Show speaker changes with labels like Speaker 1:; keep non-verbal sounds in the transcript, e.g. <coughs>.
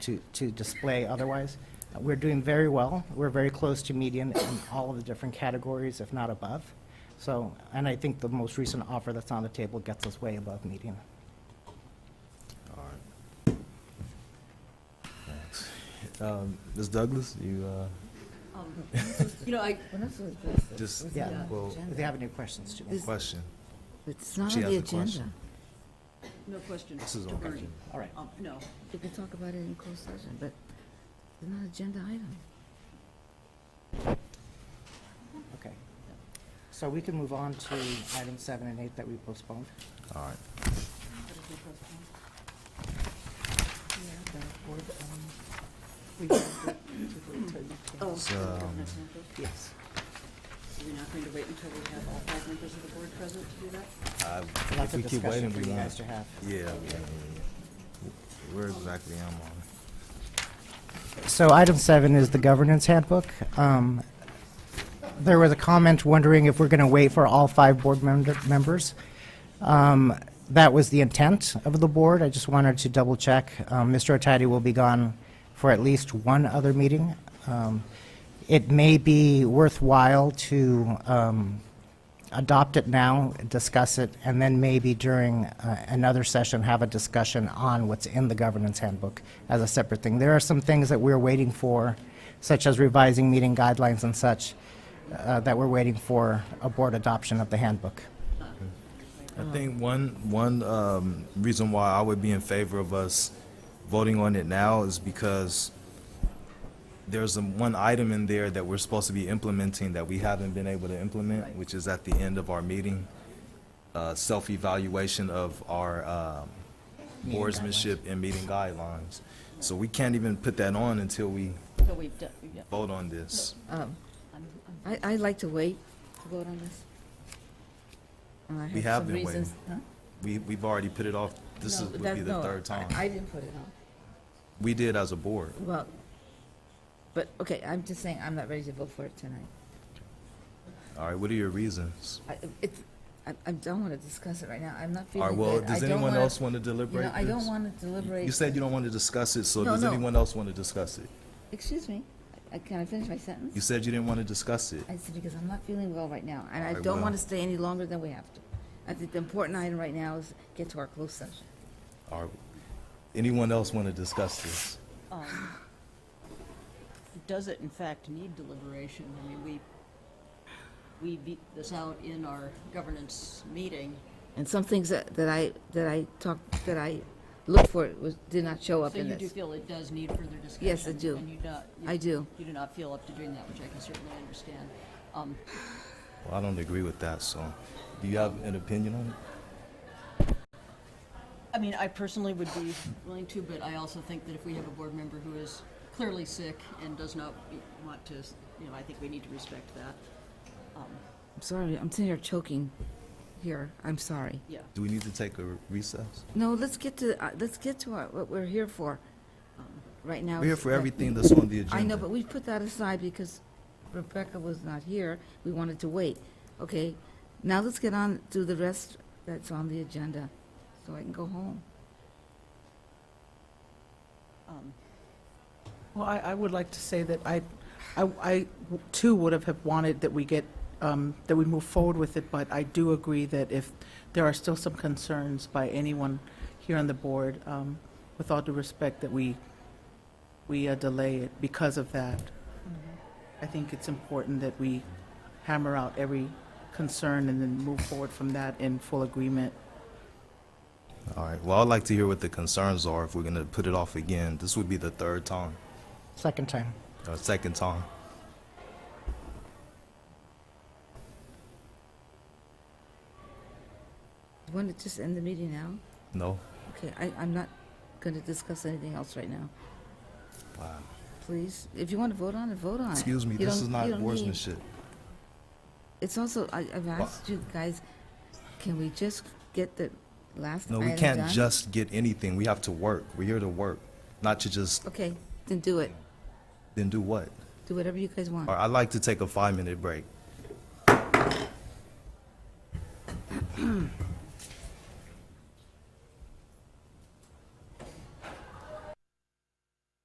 Speaker 1: to, to display otherwise. Uh, We're doing very well. We're very close to median in all of the different categories, if not above. So, and I think the most recent offer that's on the table gets us way above median.
Speaker 2: All right. Thanks. Um, Ms. Douglas, you, uh,
Speaker 3: Um, You know, I,
Speaker 2: just,
Speaker 1: Yeah.
Speaker 2: well,
Speaker 1: If you have any questions, Jimmy.
Speaker 4: Is-
Speaker 2: question.
Speaker 4: It's not
Speaker 2: She
Speaker 4: on the
Speaker 2: has a question.
Speaker 4: agenda.
Speaker 3: no question.
Speaker 2: This is
Speaker 3: to
Speaker 2: on
Speaker 3: Bernie.
Speaker 2: Virgin.
Speaker 1: All right.
Speaker 3: Um, No,
Speaker 4: We can talk about it in closed session, but it's not an agenda item.
Speaker 1: Okay. So we can move on to item seven and eight that we postponed.
Speaker 2: All right.
Speaker 1: <coughs>
Speaker 2: So,
Speaker 3: oh. okay,
Speaker 2: um,
Speaker 3: that's not good.
Speaker 1: Yes.
Speaker 3: So you're not going to wait until we have all five members of the board present to do that?
Speaker 2: I-
Speaker 1: Lots
Speaker 2: if we
Speaker 1: of
Speaker 2: keep
Speaker 1: discussion
Speaker 2: waiting,
Speaker 1: for
Speaker 2: we
Speaker 1: you
Speaker 2: won't-
Speaker 1: guys to have.
Speaker 2: Yeah, yeah, yeah, yeah. Where exactly am I?
Speaker 1: So item seven is the governance handbook. Um, There was a comment wondering if we're going to wait for all five board member- members. Um, That was the intent of the board. I just wanted to double check. Um, Mr. Otadi will be gone for at least one other meeting. Um, It may be worthwhile to um, adopt it now, discuss it, and then maybe during uh, another session, have a discussion on what's in the governance handbook as a separate thing. There are some things that we're waiting for, such as revising meeting guidelines and such, uh, that we're waiting for a board adoption of the handbook.
Speaker 2: I think one, one um, reason why I would be in favor of us voting on it now is because there's a- one item in there that we're supposed to be implementing that we haven't been able to implement, which is at the end of our meeting, uh, self-evaluation of our um,
Speaker 1: Meeting
Speaker 2: boardsmanship and meeting guidelines. So we can't even put that on until we
Speaker 3: So we've done, yeah.
Speaker 2: vote on this.
Speaker 4: Um,
Speaker 3: I'm- I'm-
Speaker 4: I, I'd like to wait to vote on this. And I
Speaker 2: We have
Speaker 4: some
Speaker 2: been waiting.
Speaker 4: reasons- huh?
Speaker 2: We, we've already put it off, this
Speaker 4: No,
Speaker 2: is- would
Speaker 4: that's-
Speaker 2: be the
Speaker 4: no,
Speaker 2: third
Speaker 4: I-
Speaker 2: time.
Speaker 4: I didn't put it on.
Speaker 2: We did as a board.
Speaker 4: Well, but, okay, I'm just saying, I'm not ready to vote for it tonight.
Speaker 2: All right, what are your reasons?
Speaker 4: I, it's, I, I don't want to discuss it right now. I'm not
Speaker 2: All right,
Speaker 4: feeling
Speaker 2: well,
Speaker 4: good. I
Speaker 2: does
Speaker 4: don't
Speaker 2: anyone
Speaker 4: wanna-
Speaker 2: else want to
Speaker 4: You
Speaker 2: deliberate
Speaker 4: know, I don't
Speaker 2: this?
Speaker 4: want to deliberate.
Speaker 2: You said you don't want to discuss it, so
Speaker 4: No,
Speaker 2: does
Speaker 4: no.
Speaker 2: anyone else want to discuss it?
Speaker 4: Excuse me, I- can I finish my sentence?
Speaker 2: You said you didn't want to discuss it.
Speaker 4: I said, because I'm not feeling well right now, and
Speaker 2: I
Speaker 4: I don't want
Speaker 2: will.
Speaker 4: to stay any longer than we have to. I think the important item right now is get to our closed session.
Speaker 2: All right. Anyone else want to discuss this?
Speaker 3: um, Does it in fact need deliberation? I mean, we, we beat this out in our governance meeting.
Speaker 4: And some things that, that I, that I talked, that I looked for was, did not show up
Speaker 3: So
Speaker 4: in
Speaker 3: you do
Speaker 4: this.
Speaker 3: feel it does need further discussion?
Speaker 4: Yes, I do.
Speaker 3: And you not. you-
Speaker 4: I do.
Speaker 3: You do not feel up to doing that, which I can certainly understand. Um,
Speaker 2: Well, I don't agree with that, so do you have an opinion on it?
Speaker 3: I mean, I personally would be willing to, but I also think that if we have a board member who is clearly sick and does not want to, you know, I think we need to respect that. Um,
Speaker 4: I'm sorry, I'm sitting here choking here, I'm sorry.
Speaker 3: Yeah.
Speaker 2: Do we need to take a recess?
Speaker 4: No, let's get to, uh, let's get to our- what we're here for, um, right now.
Speaker 2: We're here
Speaker 4: is
Speaker 2: for
Speaker 4: that-
Speaker 2: everything that's on the agenda.
Speaker 4: I know, but we put that aside because Rebecca was not here. We wanted to wait. Okay, now let's get on to the rest that's on the agenda, so I can go home.
Speaker 3: Um,
Speaker 5: Well, I, I would like to say that I, I, I too would have have wanted that we get, um, that we move forward with it, but I do agree that if there are still some concerns by anyone here on the board, um, with all due respect, that we, we uh, delay it because of that. I think it's important that we hammer out every concern and then move forward from that in full agreement.
Speaker 2: All right, well, I'd like to hear what the concerns are if we're going to put it off again. This would be the third time,
Speaker 1: Second time.
Speaker 2: or second time.
Speaker 4: Want to just end the meeting now?
Speaker 2: No?
Speaker 4: Okay, I, I'm not going to discuss anything else right now.
Speaker 2: Wow.
Speaker 4: Please, if you want to vote on it, vote on it.
Speaker 2: Excuse me,
Speaker 4: You
Speaker 2: this
Speaker 4: don't-
Speaker 2: is
Speaker 4: you
Speaker 2: not
Speaker 4: don't need-
Speaker 2: boardsmanship.
Speaker 4: It's also I, I've asked you guys, can we just get the last
Speaker 2: No,
Speaker 4: item
Speaker 2: we can't
Speaker 4: done?
Speaker 2: just get anything. We have to work. We're here to work, not to just,
Speaker 4: Okay, then do it.
Speaker 2: then do what?
Speaker 4: Do whatever you guys want.
Speaker 2: All right, I'd like to take a five-minute break.